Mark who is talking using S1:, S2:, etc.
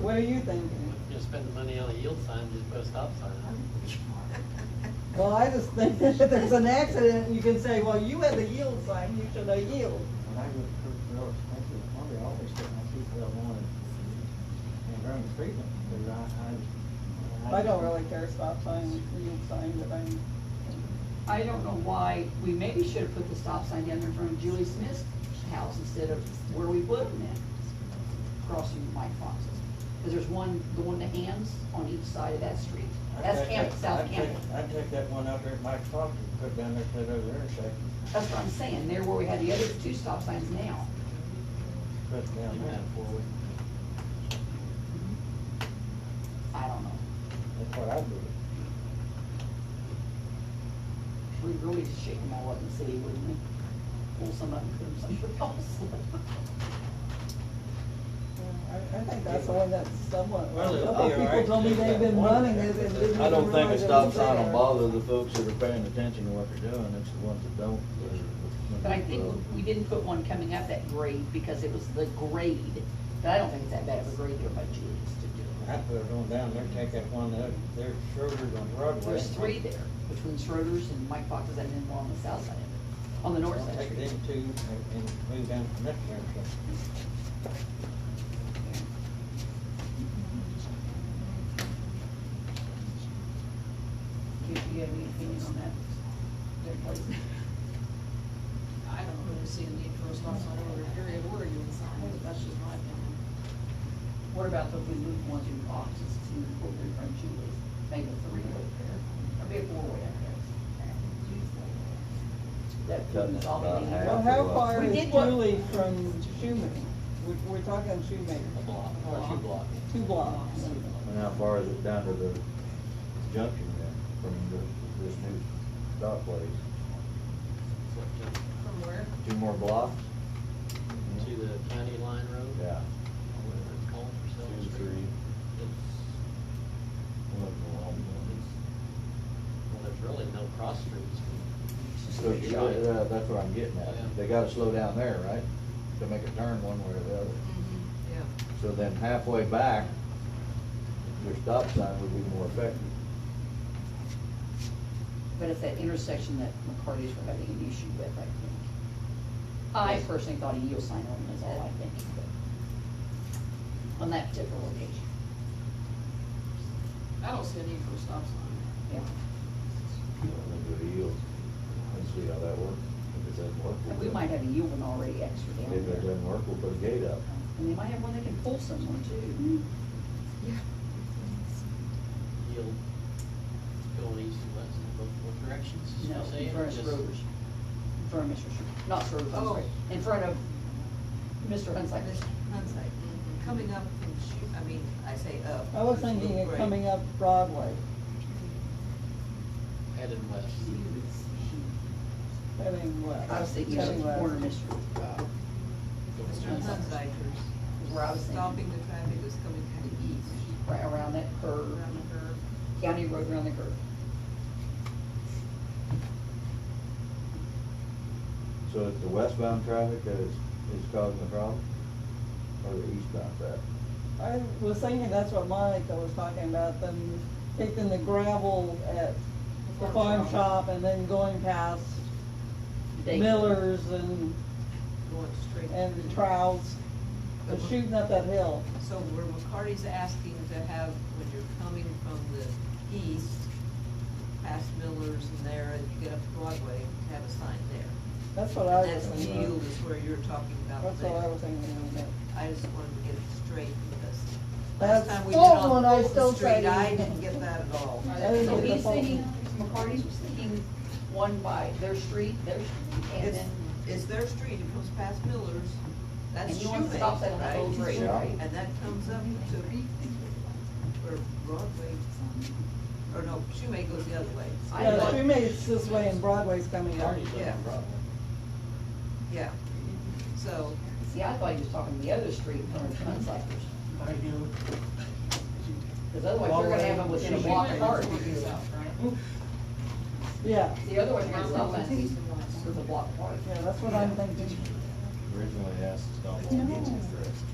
S1: What are you thinking?
S2: Just spend the money on a yield sign, just put a stop sign on
S1: Well, I just think that if there's an accident, you can say, well, you had the yield sign, you should have yield.
S3: When I go to real expensive, probably always get my seatbelt on and, and during the treatment, because I, I.
S1: I don't really care stop sign, yield sign, but I'm,
S4: I don't know why, we maybe should have put the stop sign down there in front of Julie Smith's house instead of where we put them at, crossing Mike Fox's. Because there's one, the one to hands on each side of that street.
S3: I'd
S4: That's
S3: take
S4: Campbell,
S3: that-
S4: South
S3: I'd take-
S4: Campbell.
S3: I'd take that one out there at Mike's Pop, and put it down there to that other intersection,
S4: That's what I'm saying, there where we had the other two stop signs now.
S3: put it
S2: it.
S3: down
S2: You
S3: there.
S2: have four wheels.
S4: I don't know.
S3: That's what I'd do.
S4: We really should shake them all up and see, wouldn't we? Pull some up and put them somewhere else.
S1: I, I think that's the one that's somewhat,
S3: Well,
S1: a
S3: it'll
S1: couple
S3: be all
S1: people
S3: right
S1: told me
S3: if
S1: they've
S3: that
S1: been
S3: one-
S1: running it and didn't
S5: I don't think a
S1: realize it
S5: stop
S1: was
S5: sign will
S1: there.
S5: bother the folks that are paying attention to what they're doing, it's the ones that don't. that are-
S4: But I think we didn't put one coming up that grade because it was the grade. But I don't think it's that bad of a grade there by Julie's to do it.
S3: I'd put it on down there, take that one up, there's Schroeder's on Broadway.
S4: There's three there, between Schroeder's and Mike Fox's and then one on the south side of it, on the north side.
S3: Take them two and, and move down to next intersection.
S4: Do you have any opinion on that? Their place?
S6: I don't really see a need for a stop sign over an area where you would sign, but that's just my opinion.
S4: What about if we move one to Fox's to over there from Julie's, make a three-way there, or be a four-way up there? That
S5: Cutting it
S4: all
S5: about half.
S1: Well, how far
S4: We
S1: is
S4: did what-
S1: Julie from Schumaker? We're, we're talking Schumaker,
S2: A block, or two blocks.
S1: two blocks.
S5: And how far is it down to the junction then, from the, this new stop place?
S6: From where?
S5: Two more blocks?
S2: To the county line road.
S5: Yeah.
S2: Or whatever it's called for Silver
S5: Two,
S2: Street.
S5: three.
S2: It's, well, there's really no cross streets.
S5: So, you got- uh, that's what I'm getting
S2: Yeah.
S5: at, they gotta slow down there, right? To make a turn one way or the other.
S7: Mm-hmm.
S6: Yeah.
S5: So then halfway back, your stop sign would be more effective.
S4: But it's that intersection that McCarty's were having an issue with, I think. I personally thought a yield sign on is all I think, but on that particular location,
S6: I don't see a need for a stop sign.
S4: yeah.
S5: You know, then do a yield and see how that works. If it doesn't work. we'll
S4: And we
S5: put-
S4: might have a yield one already extra
S5: If
S4: down
S5: it
S4: there.
S5: doesn't work, we'll put a gate up.
S4: And they might have one that can pull someone too.
S2: Yield, going east and west in both, both directions. is
S4: No,
S2: what I'm
S4: in
S2: saying,
S4: front of
S2: just-
S4: Schroeder's. In front of Mr. Schroeder, not Schroeder's, I'm
S6: Oh.
S4: sorry. In front of Mr. Hunsiker's.
S7: That's like, Mm-hmm. coming up from Schu, I mean, I say up.
S1: I was thinking of coming up Broadway,
S2: Headed west.
S1: heading west.
S4: I was thinking of
S1: heading
S4: the
S1: west.
S4: corner, of Mr. uh,
S7: Mr. Hunziker's,
S4: where I was
S7: stopping
S4: thinking,
S7: the traffic is coming kind of east,
S4: right around that curve,
S7: around the curve.
S4: county road around the curve.
S5: So it's the westbound traffic that is, is causing the problem? Or the eastbound traffic?
S1: I was thinking that's what Monica was talking about, them taking the gravel at the farm shop and then going past
S4: They-
S1: Miller's and,
S7: Going straight.
S1: and the Trowels, and shooting up that hill.
S7: So where McCarty's asking to have, when you're coming from the east, past Miller's and there, and you get up to Broadway, have a sign there.
S1: That's what I
S7: And
S1: was
S7: that's the
S1: thinking.
S7: yield is where you're talking about.
S1: That's
S7: there.
S1: what I was thinking. about.
S7: I just wanted to get it straight because
S1: That's
S7: last time we
S1: full
S7: went on
S1: when I still
S7: Fulton
S1: tried
S7: Street,
S1: to-
S7: I didn't get that at all.
S1: I didn't
S4: So
S1: get the
S4: he's
S1: phone.
S4: thinking, McCarty's was thinking one by their street, their street, and
S7: It's,
S4: then,
S7: it's their street, it comes past Miller's, that's
S4: and you
S7: Shoemake,
S4: want to stop that on the
S7: right?
S4: whole grade,
S5: Yeah.
S4: right?
S7: And that comes up to, where Broadway, or no, Shoemake goes the other way.
S4: I
S1: Yeah,
S4: thought-
S1: she made it this way and Broadway's coming up.
S2: Party's up in
S7: Yeah.
S2: Broadway.
S7: Yeah, so,
S4: See, I thought he was talking the other street, coming from Hunsiker's. Because otherwise, you're gonna have them within a block apart.
S1: Yeah,
S4: The other way, you're gonna stop at least with a block apart.
S1: yeah, that's what I'm thinking.
S5: Originally asked to stop on East Crest.